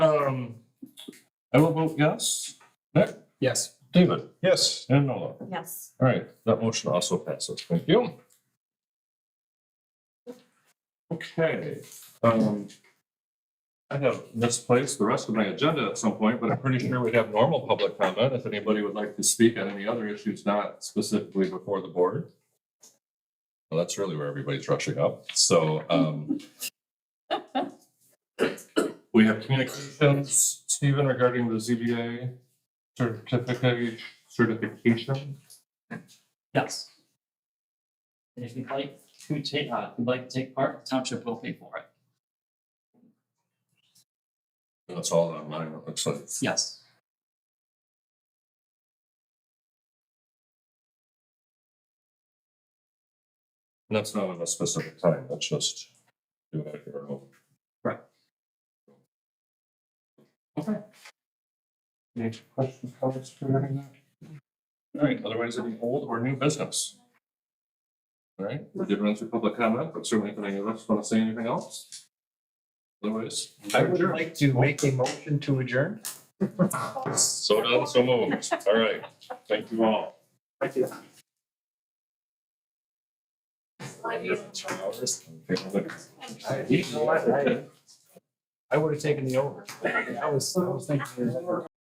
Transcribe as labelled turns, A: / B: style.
A: Um,
B: I will vote yes. Nick,
C: Yes.
B: David,
D: Yes.
B: and Nola.
E: Yes.
B: All right, that motion also passes. Thank you. Okay, um, I have misplaced the rest of my agenda at some point, but I'm pretty sure we'd have normal public comment if anybody would like to speak on any other issues not specifically before the board. Well, that's really where everybody's rushing up, so, um, we have communications, Stephen, regarding the ZBA certificate, certification.
A: Yes. And if you'd like to take, uh, if you'd like to take part, the township will pay for it.
B: That's all online, it looks like.
A: Yes.
B: And that's not on a specific time, that's just do it at your own.
A: Right.
B: Okay. Any questions, comments regarding that? All right, otherwise any old or new business? All right, we did run through public comment, but certainly if any of us want to say anything else. Otherwise.
D: I would
B: Sure.
D: like to make a motion to adjourn.
B: So done, so moved. All right, thank you all.
D: Thank you. You know what, I, I would have taken the over. I was, I was thinking.